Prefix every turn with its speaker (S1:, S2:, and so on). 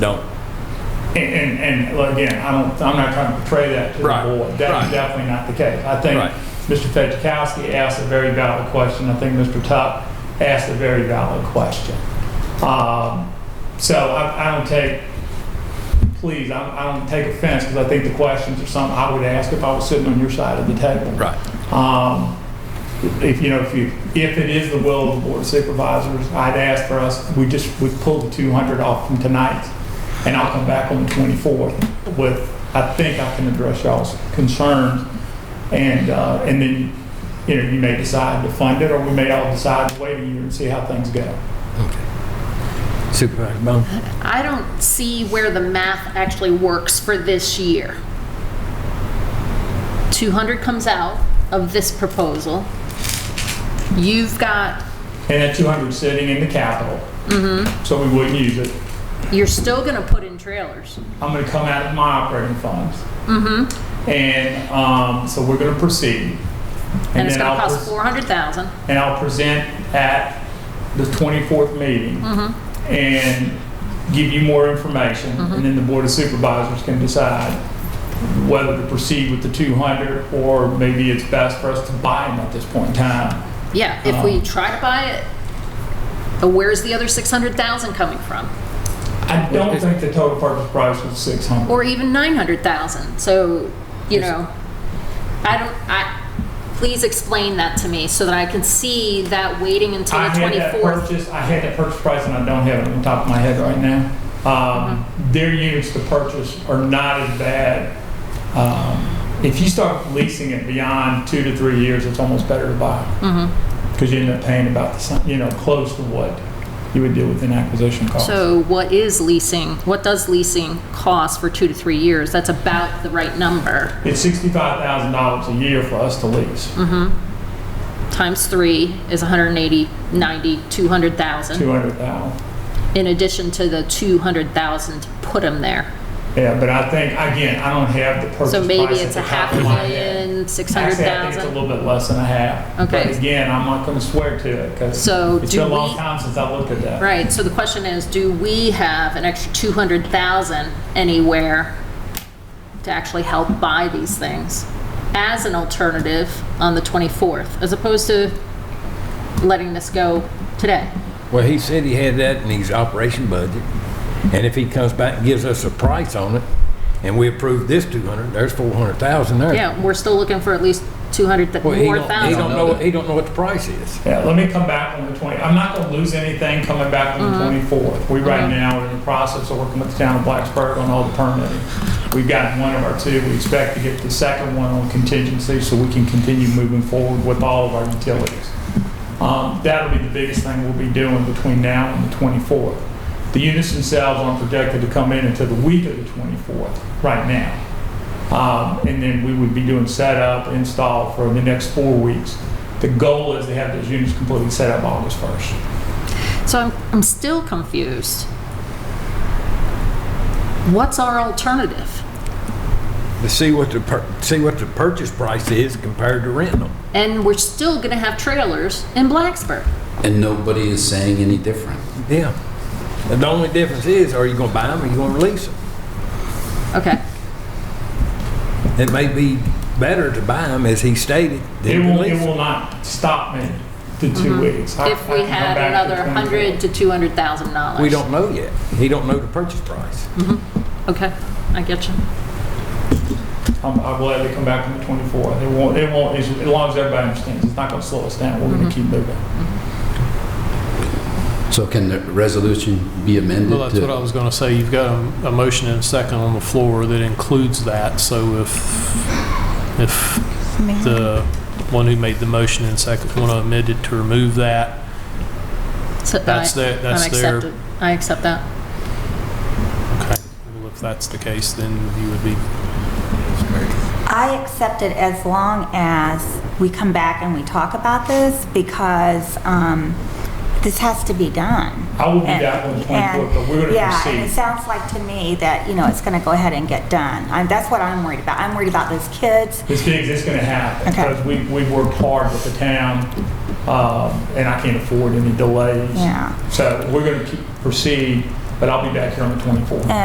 S1: No.
S2: And, and, and well, again, I don't, I'm not trying to portray that to the
S1: Right,
S2: board. That's
S1: right.
S2: definitely not the case. I think
S1: Right.
S2: Mr. Fedjakowski asked a very valid question. I think Mr. Tuck asked a very valid question. Um, so I, I don't take, please, I, I don't take offense because I think the questions are something I would ask if I was sitting on your side of the table.
S1: Right.
S2: Um, If, you know, if you, if it is the will of the board of supervisors, I'd ask for us, we just, we pull the 200 off from tonight, and I'll come back on the 24th with, I think I can address y'all's concerns, and, uh, and then, you know, you may decide to fund it, or we may all decide to wait a year and see how things go.
S3: Supervisor Bone?
S4: I don't see where the math actually works for this year. 200 comes out of this proposal. You've got,
S2: And that 200 sitting in the capital. So we wouldn't use it.
S4: you're still going to put in trailers.
S2: I'm gonna come out of my operating funds.
S4: Mm-hmm.
S2: And, um, so we're gonna proceed.
S4: And it's
S2: then
S4: going
S2: I'll
S4: to
S2: pres-
S4: cost 400,000.
S2: And I'll present at the 24th meeting
S4: Mm-hmm.
S2: and give you more information. And then the Board of Supervisors can decide whether to proceed with the 200 or maybe it's best for us to buy them at this point in time.
S4: Yeah, if
S2: Uh-huh.
S4: we try to buy it, uh, where's the other 600,000 coming from?
S2: I don't think the total purchase price was 600.
S4: Or even 900,000? So, you know, I don't, I, please explain that to me so that I can see that waiting until the
S2: I had that
S4: 24th.
S2: purchase, I had that purchase price and I don't have it on the top of my head right now. Um,
S4: Mm-hmm.
S2: Their units to purchase are not as bad. Um, If you start leasing it beyond two to three years, it's almost better to buy.
S4: Mm-hmm.
S2: Because you end up paying about the, same- you know, close to what you would do with an acquisition cost.
S4: So what is leasing, what does leasing cost for two to three years? That's about the right number,
S2: It's sixty-five thousand dollars a year for us to lease,
S4: Mm-hmm. times three is 180, 90, 200,000,
S2: two hundred thousand.
S4: in addition to the 200,000 to put them there.
S2: Yeah, but I think, again, I don't have the purchase
S4: So
S2: price.
S4: maybe
S2: at
S4: it's
S2: the
S4: a
S2: top
S4: half
S2: of
S4: a
S2: my head.
S4: million,
S2: Actually, I think it's a
S4: 600,000.
S2: little bit less than a half.
S4: Okay.
S2: But again, I'm not going to swear to it because
S4: So
S2: it's
S4: do
S2: been a long
S4: we-
S2: time since I looked at that.
S4: Right, so the question is, do we have an extra 200,000 anywhere to actually help buy these things as an alternative on the 24th, as opposed to letting this go today?
S3: Well, he said he had that in his operation budget, and if he comes back and gives us a price on it, and we approve this 200, there's 400,000 there.
S4: Yeah, we're still looking for at least 200, th-
S3: Well, he
S4: more
S3: don't, he don't
S4: thousand.
S3: know, he don't know what the price is.
S2: Yeah, let me come back on the 20, I'm not going to lose anything coming back on the 24th. We right now are in the process of working with the town of Blacksburg on all the permitting. We've gotten one of our two, we expect to get the second one on contingency so we can continue moving forward with all of our utilities. Um, That'll be the biggest thing we'll be doing between now and the 24th. The units themselves aren't projected to come in until the week of the 24th, right now. Um, And then we would be doing setup, install for the next four weeks. The goal is to have those units completely set up August 1st.
S4: So I'm, I'm still confused. What's our alternative?
S3: To see what the, pur- see what the purchase price is compared to renting them.
S4: And we're still going to have trailers in Blacksburg.
S5: And nobody is saying any different.
S3: Yeah. And the only difference is, are you gonna buy them or you gonna lease them?
S4: Okay,
S3: It may be better to buy them, as he stated,
S2: It
S3: than to
S2: will, it
S3: lease 'em.
S2: will not stop me the two weeks. I-
S4: Mm-hmm. if
S2: I
S4: we
S2: can come
S4: had
S2: back to
S4: another
S2: the 24th.
S4: 100 to 200,000 dollars.
S3: We don't know yet. He don't know the purchase price.
S4: Okay, I get you.
S2: I'm, I'm glad they come back on the 24th. It won't, it won't, as as long as everybody understands, it's not going to slow us down. We're going
S4: Mm-hmm.
S2: to keep moving.
S5: So can the resolution be amended?
S6: Well, that's
S5: to-
S6: what I was going to say. You've got a, a motion and a second on the floor that includes that, so if, if the one who made the motion and second one amended to remove that,
S4: So
S6: that's
S4: I-
S6: their,
S4: I'm
S6: that's their.
S4: accepted. I accept that.
S6: Okay. Well, if that's the case, then you would be,
S7: I accept it as long as we come back and we talk about this because um, this has to be done.
S2: I will be
S7: And-
S2: back on the 24th,
S7: and-
S2: but we're going to
S7: Yeah, and it
S2: proceed.
S7: sounds like to me that, you know, it's going to go ahead and get done. I- That's what I'm worried about. I'm worried about those kids.
S2: This big, it's going to happen.
S7: Okay.
S2: Because we, we worked hard with the town, um, and I can't afford any delays.
S7: Yeah.
S2: So we're going to proceed but I'll be back here on the 24th.